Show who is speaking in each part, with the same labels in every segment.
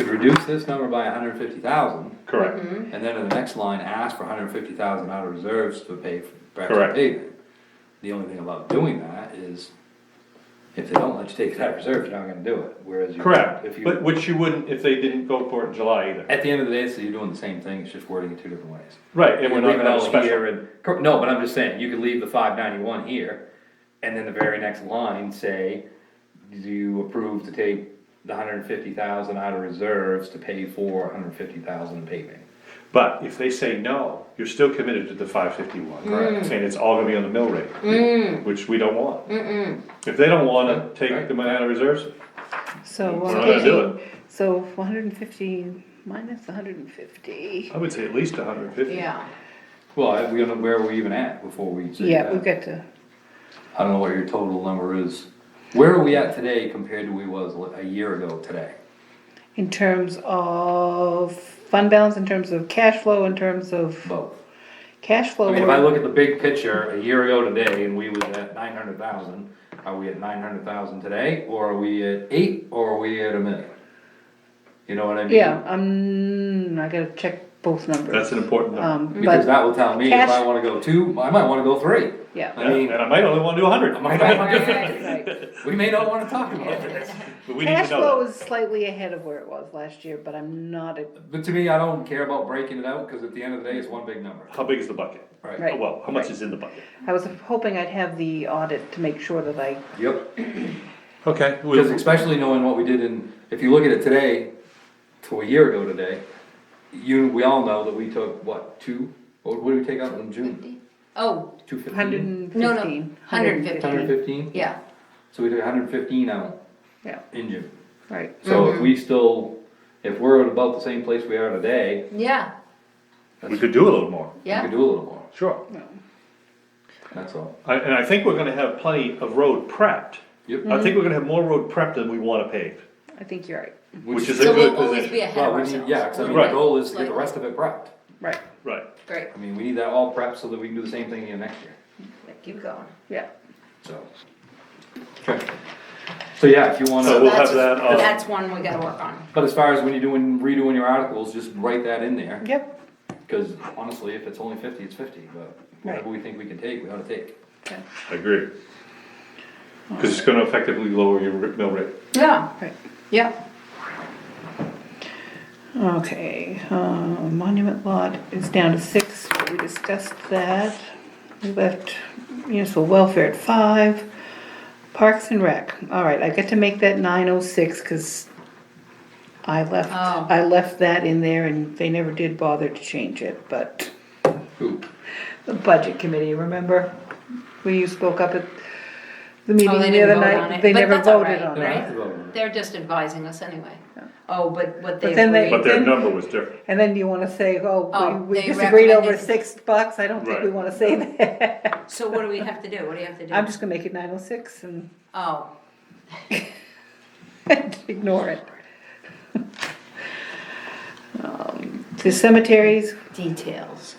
Speaker 1: reduce this number by hundred and fifty thousand,
Speaker 2: correct,
Speaker 3: Mm-hmm.
Speaker 1: and then in the next line, ask for hundred and fifty thousand out of reserves to pay for
Speaker 2: Correct.
Speaker 1: Braxton paving. The only thing about doing that is, if they don't let you take it out of reserve, you're not gonna do it, whereas you. If
Speaker 2: correct,
Speaker 1: you,
Speaker 2: but which you wouldn't if they didn't go for it in July either.
Speaker 1: at the end of the day, so you're doing the same thing, it's just wording it two different ways.
Speaker 2: Right, and
Speaker 1: You
Speaker 2: we're
Speaker 1: leave
Speaker 2: not
Speaker 1: it
Speaker 2: that
Speaker 1: all
Speaker 2: special,
Speaker 1: here and, cor- no, but I'm just saying, you could leave the five ninety-one here, and then the very next line say, do you approve to take the hundred and fifty thousand out of reserves to pay for hundred and fifty thousand paving?
Speaker 2: but if they say no, you're still committed to the five
Speaker 3: Mm.
Speaker 2: fifty-one,
Speaker 1: Correct.
Speaker 2: saying it's all gonna be on the mill rate, which we don't want. If they don't wanna take the money out of reserves,
Speaker 3: So,
Speaker 2: We're not gonna do
Speaker 3: uh, so one hundred and fifty minus one hundred and fifty.
Speaker 2: I would say at least hundred and fifty.
Speaker 4: Yeah,
Speaker 1: Well, I- we don't know where we're even at before we say
Speaker 3: Yeah, we've
Speaker 1: that.
Speaker 3: got to,
Speaker 1: I don't know what your total number is. Where are we at today compared to we was li- a year ago today?
Speaker 3: in terms of fund balance, in terms of cash flow, in terms of
Speaker 1: Both.
Speaker 3: cash flow.
Speaker 1: I mean, if I look at the big picture, a year ago today, and we was at nine hundred thousand, are we at nine hundred thousand today, or are we at eight, or are we at a million? You know what I mean?
Speaker 3: Yeah, I'm, I gotta check both numbers.
Speaker 2: That's an important number.
Speaker 3: Um,
Speaker 1: Because
Speaker 3: but,
Speaker 1: that will tell me if I
Speaker 3: Cash-
Speaker 1: wanna go two, I might wanna go three.
Speaker 3: yeah.
Speaker 1: I mean-
Speaker 2: And I might only wanna do hundred,
Speaker 1: I might not wanna-
Speaker 3: Right.
Speaker 1: We may not wanna talk about this.
Speaker 2: but we need
Speaker 3: Cash
Speaker 2: to know
Speaker 3: flow
Speaker 2: that.
Speaker 3: is slightly ahead of where it was last year, but I'm not, at-
Speaker 1: But to me, I don't care about breaking it out, cause at the end of the day, it's one big number.
Speaker 2: How big is the bucket?
Speaker 3: Right.
Speaker 2: Well, how much is in the bucket?
Speaker 3: I was hoping I'd have the audit to make sure that I,
Speaker 2: Mm-hmm.
Speaker 1: Yep.
Speaker 2: Okay.
Speaker 1: Because especially knowing what we did in, if you look at it today, to a year ago today, you, we all know that we took, what, two, what what did we take out in June?
Speaker 4: oh,
Speaker 1: Two fifteen?
Speaker 3: hundred and
Speaker 4: No, no,
Speaker 3: fifteen.
Speaker 4: 115.
Speaker 1: Hundred fifteen,
Speaker 4: yeah,
Speaker 1: so we took hundred fifteen out
Speaker 3: Yeah,
Speaker 1: in June.
Speaker 3: right.
Speaker 1: So
Speaker 4: Mm-hmm.
Speaker 1: if we still, if we're at about the same place we are today,
Speaker 4: yeah,
Speaker 2: We could do a little more.
Speaker 1: we could
Speaker 4: yeah.
Speaker 1: do a little more,
Speaker 2: Sure.
Speaker 1: that's all.
Speaker 2: I- And I think we're gonna have plenty of road prepped.
Speaker 1: Yep,
Speaker 2: I think we're gonna have more road prepped than we wanna pave,
Speaker 3: I think you're right,
Speaker 2: which is a
Speaker 4: So
Speaker 2: good
Speaker 4: we'll always be
Speaker 2: position.
Speaker 4: ahead of
Speaker 1: well, we need,
Speaker 4: ourselves.
Speaker 1: yeah, cause I mean, the
Speaker 2: Right.
Speaker 1: goal is to get the
Speaker 4: Like-
Speaker 1: rest of it prepped.
Speaker 3: right,
Speaker 2: Right.
Speaker 4: Great,
Speaker 1: I mean, we need that all prepped so that we can do the same thing again next year.
Speaker 4: Yeah, keep going.
Speaker 3: yeah.
Speaker 1: So. Okay. So yeah, if you wanna.
Speaker 2: So we'll have
Speaker 4: That's-
Speaker 2: that, uh,
Speaker 4: That's one we gotta work on.
Speaker 1: But as far as when you're doing, redoing your articles, just write that in there,
Speaker 3: Yep.
Speaker 1: cause honestly, if it's only fifty, it's fifty, but whatever we think we can take, we ought to take.
Speaker 3: Okay.
Speaker 2: I agree. Cause it's gonna effectively lower your ri- mill rate.
Speaker 4: Yeah,
Speaker 3: Right.
Speaker 4: yeah,
Speaker 3: Okay, uh, monument lot is down to six, we discussed that. We left municipal welfare at five. Parks and Rec, all right, I get to make that nine oh six, cause I left,
Speaker 4: Oh.
Speaker 3: I left that in there and they never did bother to change it, but
Speaker 1: Who?
Speaker 3: the budget committee, remember? When you spoke up at the meeting
Speaker 4: Oh, they
Speaker 3: the
Speaker 4: didn't
Speaker 3: other
Speaker 4: vote on it,
Speaker 3: night, they
Speaker 4: but
Speaker 3: never
Speaker 4: that's all
Speaker 3: voted
Speaker 4: right.
Speaker 3: on
Speaker 1: They don't have
Speaker 3: it.
Speaker 1: to vote on it.
Speaker 4: they're just advising us anyway. Oh, but what they
Speaker 3: then they-
Speaker 2: But
Speaker 4: agreed,
Speaker 2: their
Speaker 3: Then-
Speaker 2: number was different.
Speaker 3: And then you wanna say,
Speaker 4: Oh,
Speaker 3: oh, we- we
Speaker 4: they
Speaker 3: disagreed over
Speaker 4: recommended-
Speaker 3: six bucks, I don't think we
Speaker 2: Right.
Speaker 3: wanna say that.
Speaker 4: so what do we have to do, what do you have to do?
Speaker 3: I'm just gonna make it nine oh six and
Speaker 4: Oh,
Speaker 3: ignore it. Um, The cemeteries,
Speaker 4: details,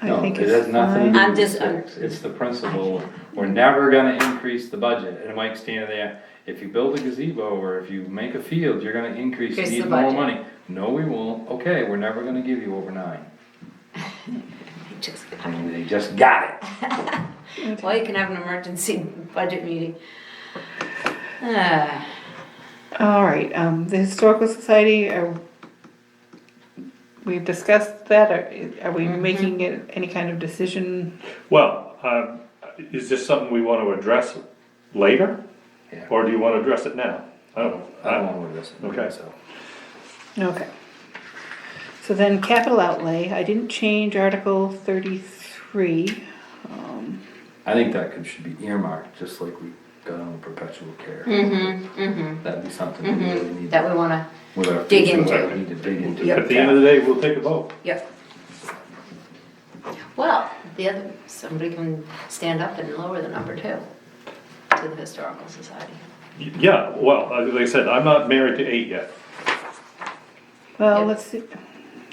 Speaker 3: I
Speaker 1: No,
Speaker 3: think
Speaker 1: it
Speaker 3: is
Speaker 1: has nothing to
Speaker 3: fine.
Speaker 1: do
Speaker 4: I'm
Speaker 1: with
Speaker 4: just-
Speaker 1: the six, it's the principle, we're never gonna increase the budget, and Mike's standing there, if you build a gazebo or if you make a field, you're gonna increase, you
Speaker 4: Increase
Speaker 1: need
Speaker 4: the
Speaker 1: more
Speaker 4: budget.
Speaker 1: money. No, we won't, okay, we're never gonna give you over nine,
Speaker 4: I just,
Speaker 1: I mean, they just got it.
Speaker 4: well, you can have an emergency budget meeting. Ah,
Speaker 3: All right, um, the historical society, are, we've discussed that, are, are we
Speaker 4: Mm-hmm.
Speaker 3: making it any kind of decision?
Speaker 2: Well, um, is this something we wanna address later?
Speaker 1: Yeah. Uh,
Speaker 2: Or do you wanna address it now? I don't, know.
Speaker 1: I don't
Speaker 2: I-
Speaker 1: wanna do this.
Speaker 2: Okay.
Speaker 1: So,
Speaker 3: Okay. So then capital outlay, I didn't change article thirty-three.
Speaker 1: I think that could, should be earmarked, just like we got on perpetual care. That'd be something we really need.
Speaker 4: mm-hmm. that we wanna,
Speaker 1: with our
Speaker 4: Dig
Speaker 1: future,
Speaker 4: into.
Speaker 1: We need to dig into.
Speaker 4: Yep.
Speaker 2: at the end of the day, we'll take a vote.
Speaker 4: yep. Well, the other, somebody can stand up and lower the number too, to the historical society.
Speaker 2: Y- Yeah, well, uh, like I said, I'm not married to eight yet.
Speaker 3: Well,
Speaker 4: Yep.
Speaker 3: let's see,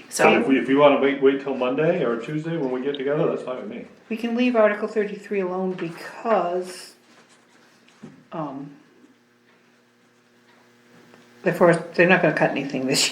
Speaker 2: So if
Speaker 4: So,
Speaker 2: we, if you wanna wait, wait till Monday or Tuesday when we get together, that's fine with me.
Speaker 3: we can leave article thirty-three alone because, um, the first, they're not gonna cut anything this year.